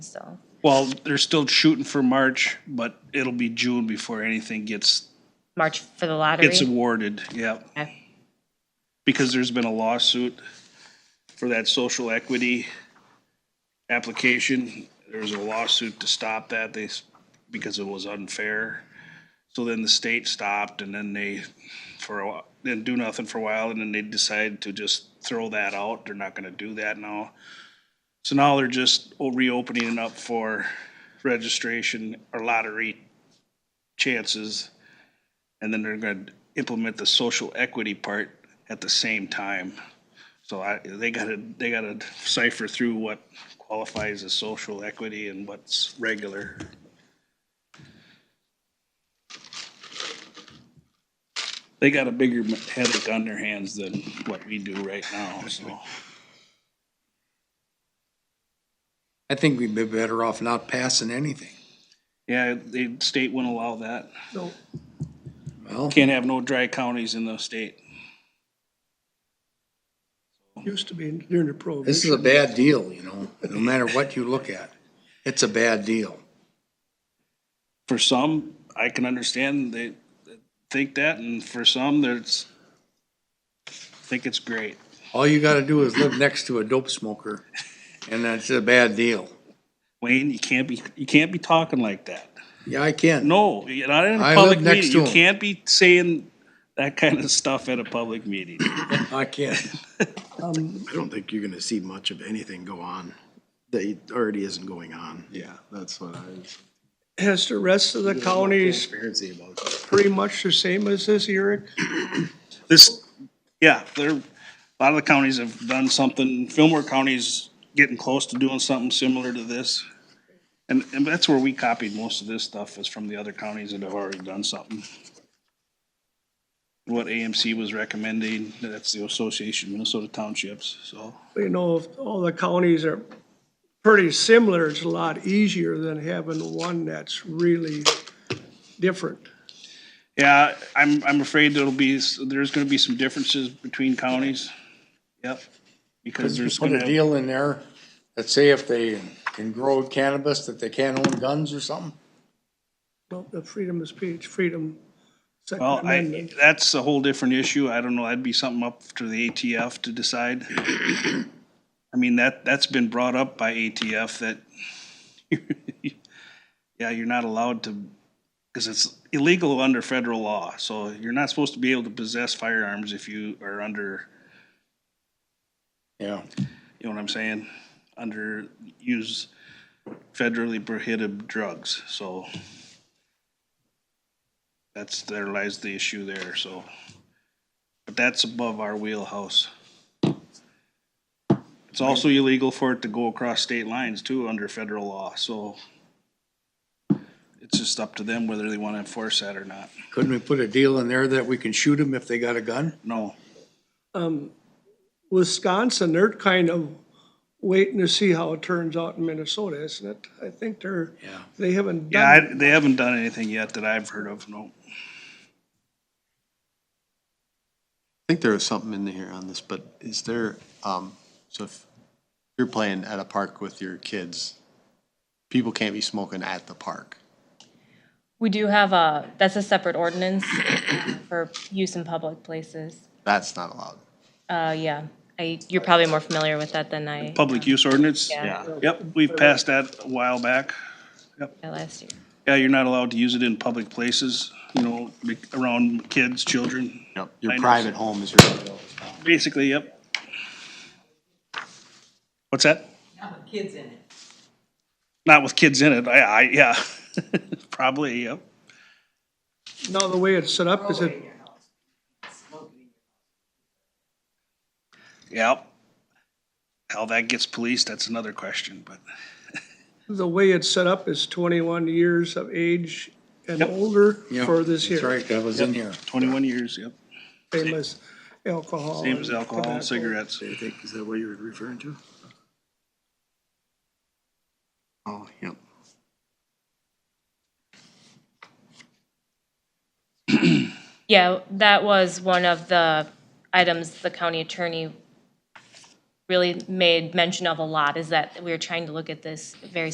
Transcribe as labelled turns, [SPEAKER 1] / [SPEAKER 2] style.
[SPEAKER 1] So,
[SPEAKER 2] Well, they're still shooting for March, but it'll be June before anything gets,
[SPEAKER 1] March for the lottery.
[SPEAKER 2] gets awarded, yeah.
[SPEAKER 1] Okay.
[SPEAKER 2] Because there's been a lawsuit for that social equity application. There was a lawsuit to stop that, they, s- because it was unfair. So then the state stopped and then they, for a while, didn't do nothing for a while and then they decided to just throw that out. They're not gonna do that now. So now they're just reopening it up for registration or lottery chances. And then they're gonna implement the social equity part at the same time. So I, they gotta, they gotta cipher through what qualifies as social equity and what's regular. They got a bigger headache on their hands than what we do right now, so.
[SPEAKER 3] I think we'd be better off not passing anything.
[SPEAKER 2] Yeah, the state wouldn't allow that.
[SPEAKER 3] Well,
[SPEAKER 2] Can't have no dry counties in the state.
[SPEAKER 4] Used to be during the prohibition.
[SPEAKER 3] this is a bad deal, you know, no matter what you look at. It's a bad deal.
[SPEAKER 2] For some, I can understand they think that, and for some, there's, think it's great.
[SPEAKER 3] All you gotta do is live next to a dope smoker, and that's a bad deal.
[SPEAKER 2] Wayne, you can't be, you can't be talking like that.
[SPEAKER 3] Yeah, I can.
[SPEAKER 2] No, you're not in a
[SPEAKER 3] I
[SPEAKER 2] public
[SPEAKER 3] live next
[SPEAKER 2] meeting.
[SPEAKER 3] to
[SPEAKER 2] You
[SPEAKER 3] him.
[SPEAKER 2] can't be saying that kind of stuff at a public meeting.
[SPEAKER 3] I can.
[SPEAKER 2] Um,
[SPEAKER 5] I don't think you're gonna see much of anything go on that already isn't going on. Yeah, that's what I.
[SPEAKER 4] Has the rest of the counties
[SPEAKER 5] Transparency about it.
[SPEAKER 4] pretty much the same as this, Eric?
[SPEAKER 2] This, yeah, there, a lot of the counties have done something, Fillmore County's getting close to doing something similar to this. And, and that's where we copied most of this stuff is from the other counties that have already done something. What AMC was recommending, that's the Association of Minnesota Townships, so.
[SPEAKER 4] You know, if all the counties are pretty similar, it's a lot easier than having one that's really different.
[SPEAKER 2] Yeah, I'm, I'm afraid there'll be, s- there's gonna be some differences between counties. Yep, because there's
[SPEAKER 3] Put a
[SPEAKER 2] gonna,
[SPEAKER 3] deal in there, let's say if they can grow cannabis, that they can't own guns or something.
[SPEAKER 4] Well, the freedom of speech, freedom, Second
[SPEAKER 2] well, I,
[SPEAKER 4] Amendment.
[SPEAKER 2] that's a whole different issue. I don't know, that'd be something up to the ATF to decide. I mean, that, that's been brought up by ATF that, yeah, you're not allowed to, because it's illegal under federal law, so you're not supposed to be able to possess firearms if you are under,
[SPEAKER 3] Yeah,
[SPEAKER 2] you know what I'm saying? Under, use federally prohibited drugs, so. That's, there lies the issue there, so. But that's above our wheelhouse. It's also illegal for it to go across state lines too, under federal law, so. It's just up to them whether they wanna enforce that or not.
[SPEAKER 3] couldn't we put a deal in there that we can shoot them if they got a gun?
[SPEAKER 2] No,
[SPEAKER 4] Wisconsin, they're kind of waiting to see how it turns out in Minnesota, isn't it? I think they're,
[SPEAKER 3] Yeah.
[SPEAKER 4] they haven't
[SPEAKER 2] yeah, I,
[SPEAKER 4] done,
[SPEAKER 2] they haven't done anything yet that I've heard of, no.
[SPEAKER 5] I think there was something in here on this, but is there, um, so if you're playing at a park with your kids, people can't be smoking at the park.
[SPEAKER 1] we do have a, that's a separate ordinance for use in public places.
[SPEAKER 5] That's not allowed.
[SPEAKER 1] Uh, yeah, I, you're probably more familiar with that than I,
[SPEAKER 2] Public use ordinance?
[SPEAKER 1] Yeah.
[SPEAKER 2] Yep, we've passed that a while back.
[SPEAKER 1] last year.
[SPEAKER 2] Yeah, you're not allowed to use it in public places, you know, be- around kids, children,
[SPEAKER 5] Yep. Your
[SPEAKER 2] Minors.
[SPEAKER 5] private home is your.
[SPEAKER 2] basically, yep. What's that?
[SPEAKER 6] kids in it.
[SPEAKER 2] Not with kids in it, I, I, yeah, probably, yep.
[SPEAKER 4] now the way it's set up is it
[SPEAKER 2] Yep. How that gets policed, that's another question, but
[SPEAKER 4] The way it's set up is twenty-one years of age and
[SPEAKER 2] Yep.
[SPEAKER 4] older
[SPEAKER 3] Yeah,
[SPEAKER 4] for this
[SPEAKER 3] That's
[SPEAKER 4] here,
[SPEAKER 3] right, that was in here.
[SPEAKER 2] twenty-one years, yep.
[SPEAKER 4] same as alcohol.
[SPEAKER 2] Same as
[SPEAKER 4] and
[SPEAKER 2] alcohol
[SPEAKER 4] tobacco.
[SPEAKER 2] and cigarettes.
[SPEAKER 5] I think, is that what you were referring to? Oh, yep.
[SPEAKER 1] Yeah, that was one of the items the county attorney really made mention of a lot, is that we were trying to look at this very